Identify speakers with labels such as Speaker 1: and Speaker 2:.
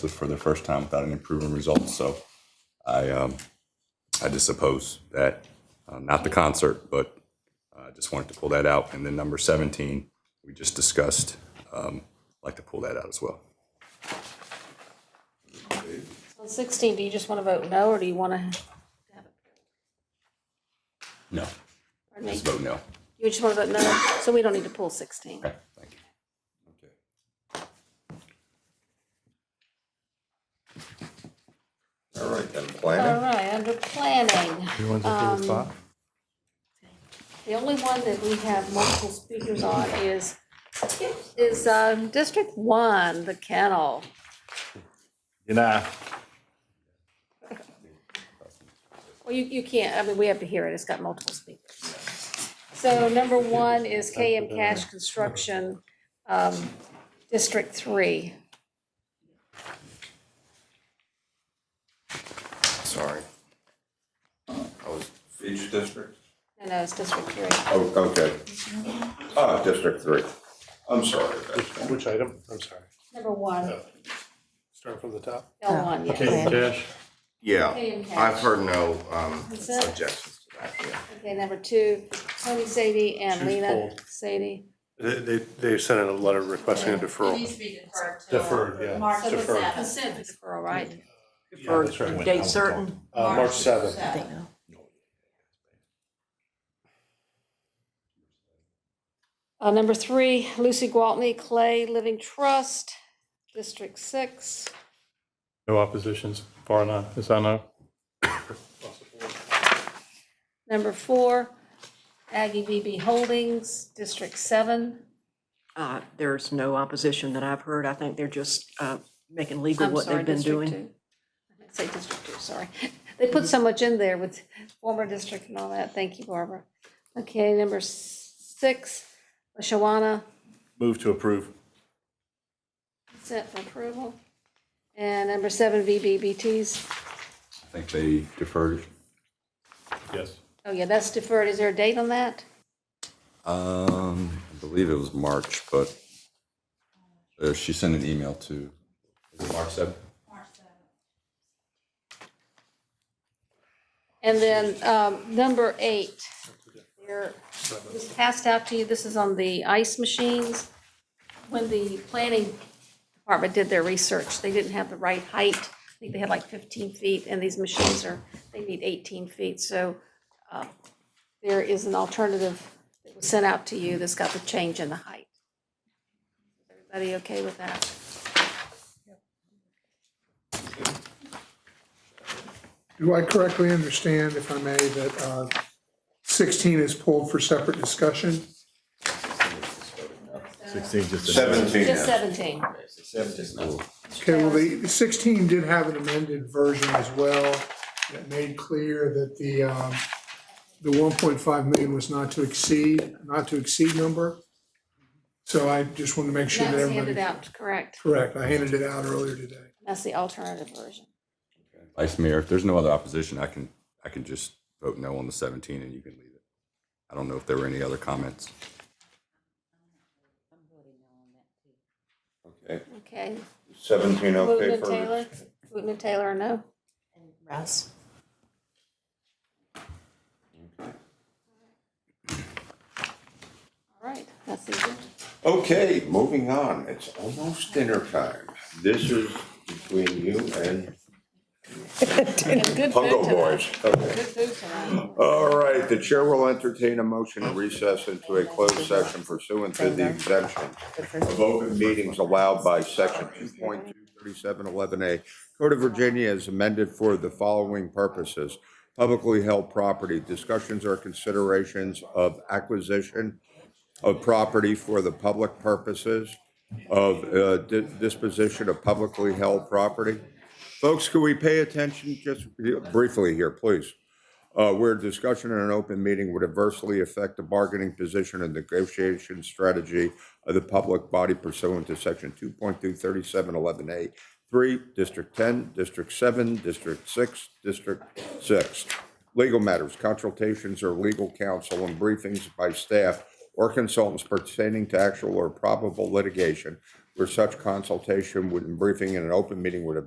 Speaker 1: this for the first time without any proven results. So I, um, I just oppose that, uh, not the concert, but uh, I just wanted to pull that out. And then number 17, we just discussed, um, I'd like to pull that out as well.
Speaker 2: On 16, do you just want to vote no, or do you want to,
Speaker 1: No.
Speaker 2: pardon me,
Speaker 1: Just vote no.
Speaker 2: you just want to vote no? So we don't need to pull 16.
Speaker 1: Okay, thank you.
Speaker 3: All right, then
Speaker 2: All
Speaker 3: planning.
Speaker 2: right, under planning,
Speaker 4: You want to do with five?
Speaker 2: the only one that we have multiple speakers on is, is um, District 1, the kennel.
Speaker 4: You know,
Speaker 2: Well, you, you can't, I mean, we have to hear it, it's got multiple speakers. So number one is KM Cash Construction, um, District Three.
Speaker 3: Sorry. I was. Each district?
Speaker 2: No, no, it's District Three.
Speaker 3: Oh, okay. Ah, District Three. I'm sorry.
Speaker 4: which item? I'm sorry.
Speaker 2: Number one,
Speaker 4: Start from the top.
Speaker 2: L one,
Speaker 4: Okay,
Speaker 2: yes.
Speaker 4: Cash.
Speaker 3: Yeah,
Speaker 2: KM Cash.
Speaker 3: I've heard no um,
Speaker 2: Consent?
Speaker 3: objections to that, yeah.
Speaker 2: Okay, number two, Tony Sadie and
Speaker 4: Choose
Speaker 2: Lena
Speaker 4: bold.
Speaker 2: Sadie.
Speaker 4: They, they, they sent in a letter requesting a
Speaker 5: It
Speaker 4: deferral.
Speaker 5: needs to be deferred to.
Speaker 4: Deferred, yeah.
Speaker 5: March
Speaker 2: So what's that?
Speaker 5: seventh.
Speaker 2: Consent deferral, right?
Speaker 4: Yeah, that's
Speaker 6: for
Speaker 4: right.
Speaker 6: date certain?
Speaker 4: Uh, March seventh.
Speaker 6: I
Speaker 5: seventh.
Speaker 6: think no.
Speaker 2: Uh, number three, Lucy Gwaltney Clay Living Trust, District Six.
Speaker 7: No oppositions, far enough, as I know.
Speaker 2: Number four, Aggie BB Holdings, District Seven.
Speaker 6: Uh, There's no opposition that I've heard. I think they're just uh, making legal
Speaker 2: I'm
Speaker 6: what
Speaker 2: sorry,
Speaker 6: they've been
Speaker 2: District
Speaker 6: doing.
Speaker 2: Two. I meant to Say District Two, sorry. They put so much in there with former district and all that. Thank you, Barbara. Okay, number s- six, Shawana,
Speaker 4: Move to approve.
Speaker 2: consent for approval. And number seven, VBBTs.
Speaker 1: I think they deferred.
Speaker 4: Yes.
Speaker 2: Oh, yeah, that's deferred. Is there a date on that?
Speaker 1: Um, I believe it was March, but uh, she sent an email to, is it March 7th?
Speaker 2: And then um, number eight, there- it was passed out to you, this is on the ice machines. When the planning department did their research, they didn't have the right height. I think they had like 15 feet, and these machines are, they need 18 feet. So uh, there is an alternative that was sent out to you that's got the change in the height. Is Everybody okay with that?
Speaker 8: Do I correctly understand, if I may, that uh, 16 is pulled for separate discussion?
Speaker 3: Seventeen.
Speaker 2: Just 17.
Speaker 8: Okay, well, the 16 did have an amended version as well that made clear that the, um, the 1.5 million was not to exceed, not to exceed number. So I just wanted to make sure that
Speaker 2: That's
Speaker 8: everybody.
Speaker 2: handed out, correct.
Speaker 8: Correct, I handed it out earlier today.
Speaker 2: That's the alternative version.
Speaker 1: Vice Mayor, if there's no other opposition, I can, I can just vote no on the 17 and you can leave it. I don't know if there were any other comments.
Speaker 3: Okay,
Speaker 2: Okay.
Speaker 3: seventeen
Speaker 2: Wooten
Speaker 3: okay
Speaker 2: and
Speaker 3: for,
Speaker 2: Taylor, Wooten and Taylor, are no.
Speaker 6: Russ?
Speaker 2: All right, that's easy.
Speaker 3: okay, moving on. It's almost dinner time. This is between you and
Speaker 2: And good food
Speaker 3: Pungo
Speaker 2: tonight.
Speaker 3: Boys. Okay.
Speaker 2: Good food tonight.
Speaker 3: All right, the chair will entertain a motion to recess into a closed session pursuant to the exemption of open meetings allowed by section two point two thirty-seven eleven A Code of Virginia is amended for the following purposes. Publicly held property, discussions or considerations of acquisition of property for the public purposes of uh, di- disposition of publicly held property. Folks, could we pay attention just briefly here, please? uh, where discussion in an open meeting would adversely affect the bargaining position and negotiation strategy of the public body pursuant to section two point two thirty-seven eleven A, three, District ten, District seven, District six, District six. Legal matters, consultations or legal counsel and briefings by staff or consultants pertaining to actual or probable litigation where such consultation would, and briefing in an open meeting would have